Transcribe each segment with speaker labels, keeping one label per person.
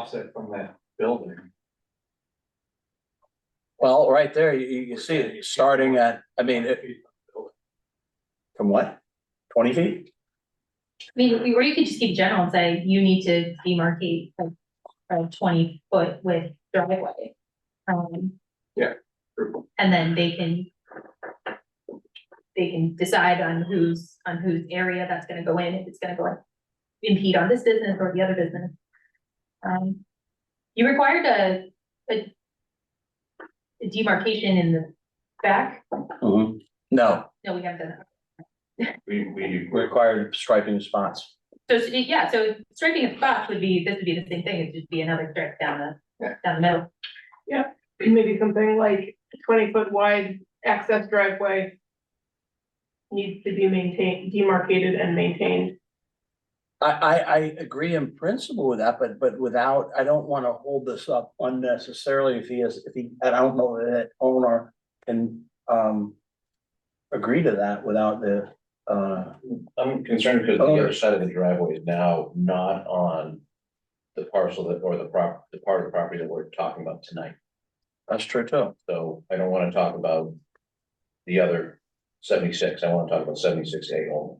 Speaker 1: offset from that building.
Speaker 2: Well, right there, you, you can see it starting at, I mean, it- from what? Twenty feet?
Speaker 3: I mean, or you could just keep general and say you need to demarcate like a twenty foot with driveway. Um, and then they can. They can decide on whose, on whose area that's gonna go in, if it's gonna go in- impede on this business or the other business. Um, you required a, a. a demarcation in the back?
Speaker 2: No,
Speaker 3: No, we haven't done that.
Speaker 1: We, we.
Speaker 2: required striping spots.
Speaker 3: So, it's- yeah, so striking a spot would be, this would be the same thing, it'd just be another strip down
Speaker 1: Yeah.
Speaker 3: the, down the middle.
Speaker 4: maybe something like twenty foot wide access driveway. Needs to be maintained, demarcated and maintained.
Speaker 2: I, I, I agree in principle with that, but, but without, I don't wanna hold this up unnecessarily if he is, if he, and I don't know that owner can, um. Agree to that without the, uh,
Speaker 5: I'm concerned because
Speaker 2: Oh.
Speaker 5: the other side of the driveway is now not on the parcel that, or the prop, the part of the property that we're talking about tonight.
Speaker 2: that's true too.
Speaker 5: So I don't wanna talk about the other seventy-six, I wanna talk about seventy-six A only.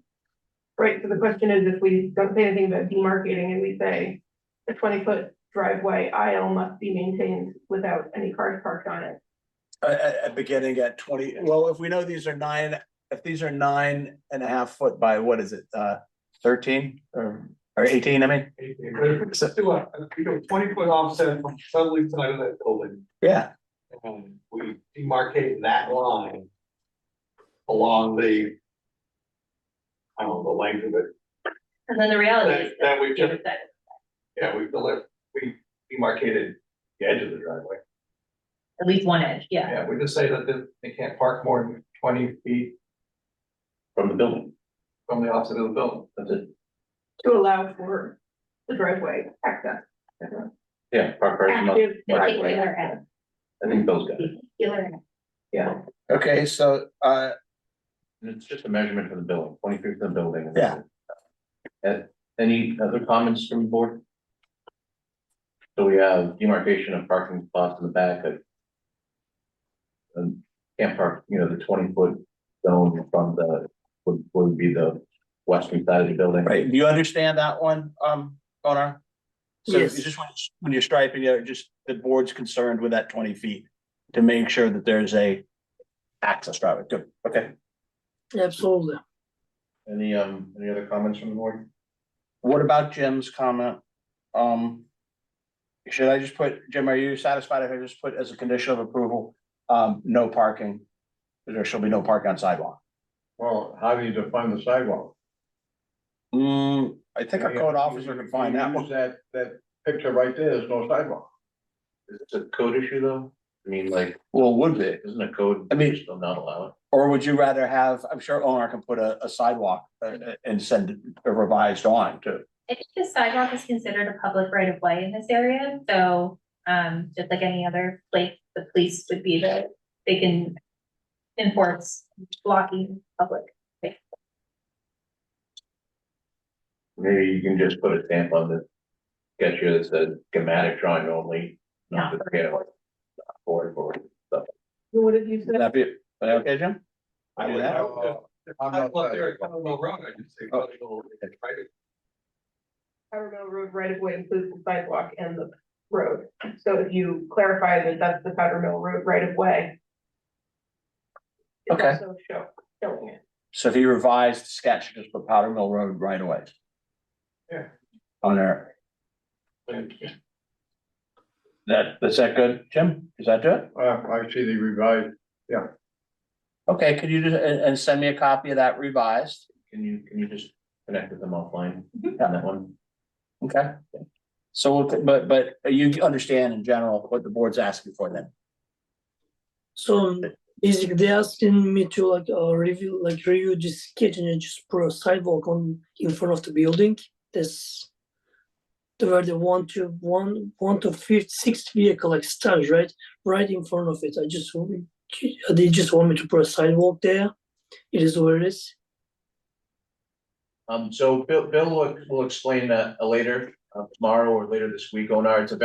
Speaker 4: Right, so the question is if we don't say anything about demarcating and we say a twenty foot driveway aisle must be maintained without any cars parked on it.
Speaker 2: Uh, uh, uh, beginning at twenty, well, if we know these are nine, if these are nine and a half foot by, what is it, uh, thirteen or, or eighteen, I mean?
Speaker 1: Let's do a, we do a twenty foot offset from southerly side of that building,
Speaker 2: Yeah,
Speaker 1: and we demarcate that line. Along the. I don't know, the length of it,
Speaker 3: And then the reality
Speaker 1: that,
Speaker 3: is
Speaker 1: that we just,
Speaker 3: that- that
Speaker 1: yeah, we, deli- we demarcated the edge of the driveway.
Speaker 3: at least one edge, yeah.
Speaker 1: Yeah, we just say that they- they can't park more than twenty feet
Speaker 5: From the building,
Speaker 1: from the offset of the building.
Speaker 5: that's it,
Speaker 4: To allow for the driveway access.
Speaker 5: yeah, park, park, I
Speaker 4: Active
Speaker 5: Right,
Speaker 4: driveway.
Speaker 3: Particular edge,
Speaker 5: think Bill's got it,
Speaker 3: particular edge.
Speaker 2: okay, so, uh,
Speaker 5: and it's just a measurement for the building, twenty-three for the building. and
Speaker 2: Yeah.
Speaker 5: And any other comments from the board? So we have demarcation of parking spots in the back of. Um, can't park, you know, the twenty-foot zone from the, would, would be the western side of the building.
Speaker 2: right, do you understand that one, um, owner? So you
Speaker 4: Yes.
Speaker 2: just when, you- when you're striping, you're just, the board's concerned with that twenty feet to make sure that there's a access driveway, good, okay.
Speaker 6: Absolutely.
Speaker 5: Any, um, any other comments from the board?
Speaker 2: What about Jim's comment? Um. Should I just put, Jim, are you satisfied if I just put as a condition of approval, um, no parking? There shall be no parking on sidewalk.
Speaker 5: Well, how do you define the sidewalk?
Speaker 2: Hmm, I think our code officer can find that one.
Speaker 5: That, that picture right there is no sidewalk. Is this a code issue though? I mean, like,
Speaker 2: Well, would be,
Speaker 5: it isn't a code,
Speaker 2: I
Speaker 5: I
Speaker 2: mean-
Speaker 5: mean, still not allow it.
Speaker 2: or would you rather have, I'm sure owner can put a, a sidewalk uh, uh, and send a revised drawing too.
Speaker 3: I think the sidewalk is considered a public right of way in this area, so, um, just like any other place, the police would be the, they can enforce blocking public.
Speaker 5: Maybe you can just put a stamp on this. Get you this uh, schematic drawing only, not the scale. Board, board.
Speaker 4: What have you
Speaker 2: Would
Speaker 4: said?
Speaker 2: that be, okay, Jim?
Speaker 1: I
Speaker 2: Do
Speaker 1: would,
Speaker 2: that?
Speaker 1: I would just- if
Speaker 5: I'm
Speaker 1: I
Speaker 5: not
Speaker 1: was there,
Speaker 5: that-
Speaker 1: I don't know, wrong, I just say, well, it's private.
Speaker 4: Power Mill Road right of way includes the sidewalk and the road. So if you clarify that that's the Powder Mill Road right of way. it's
Speaker 2: Okay.
Speaker 4: also show- showing it.
Speaker 2: So if he revised sketch, just put Powder Mill Road right away.
Speaker 1: Yeah.
Speaker 2: On there, That, is that good, Jim? Is that do it?
Speaker 5: Uh, I see the revised.
Speaker 2: Okay, could you just, and, and send me a copy of that revised?
Speaker 5: Can you, can you just connect with them offline on
Speaker 3: Mhm.
Speaker 1: Mm-hmm.
Speaker 5: that one?
Speaker 2: Okay. So, we'll t- but, but you understand in general what the board's asking for then?
Speaker 6: So basically they're asking me to like uh, review like review this sketch and then just put a sidewalk on in front of the building. That's the where the one to one one to fifth sixth vehicle like starts right right in front of it. I just want- they just want me to put a sidewalk there. It is what it is.
Speaker 5: Um, so Bill, Bill will, will explain that later,
Speaker 7: uh, tomorrow or later this week, Onar, it's a